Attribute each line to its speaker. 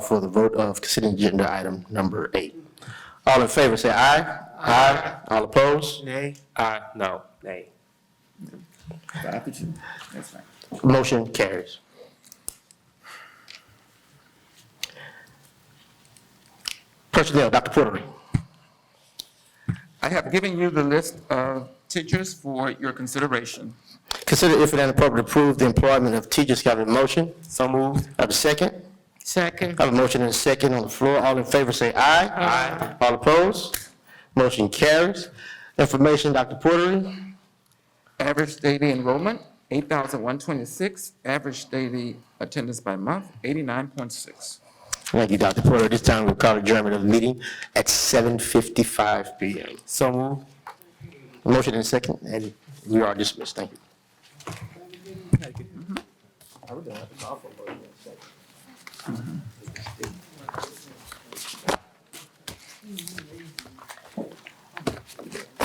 Speaker 1: for the vote of considering agenda item number eight. All in favor, say aye. Aye. All opposed?
Speaker 2: Nay.
Speaker 1: Aye, no.
Speaker 2: Nay.
Speaker 3: Five to two, that's fine.
Speaker 1: Motion carries. Personnel, Dr. Porter.
Speaker 3: I have given you the list of teachers for your consideration.
Speaker 1: Consider if it ain't appropriate to approve the employment of teachers. Got a motion?
Speaker 2: So moved.
Speaker 1: Have a second?
Speaker 3: Second.
Speaker 1: Have a motion and a second on the floor. All in favor, say aye. Aye. All opposed? Motion carries. Information, Dr. Porter.
Speaker 3: Average daily enrollment, eight thousand one twenty-six. Average daily attendance by month, eighty-nine point six.
Speaker 1: Thank you, Dr. Porter. This time we'll call adjournment of the meeting at seven fifty-five PM.
Speaker 2: So moved.
Speaker 1: Motion and second, and we are dismissed. Thank you.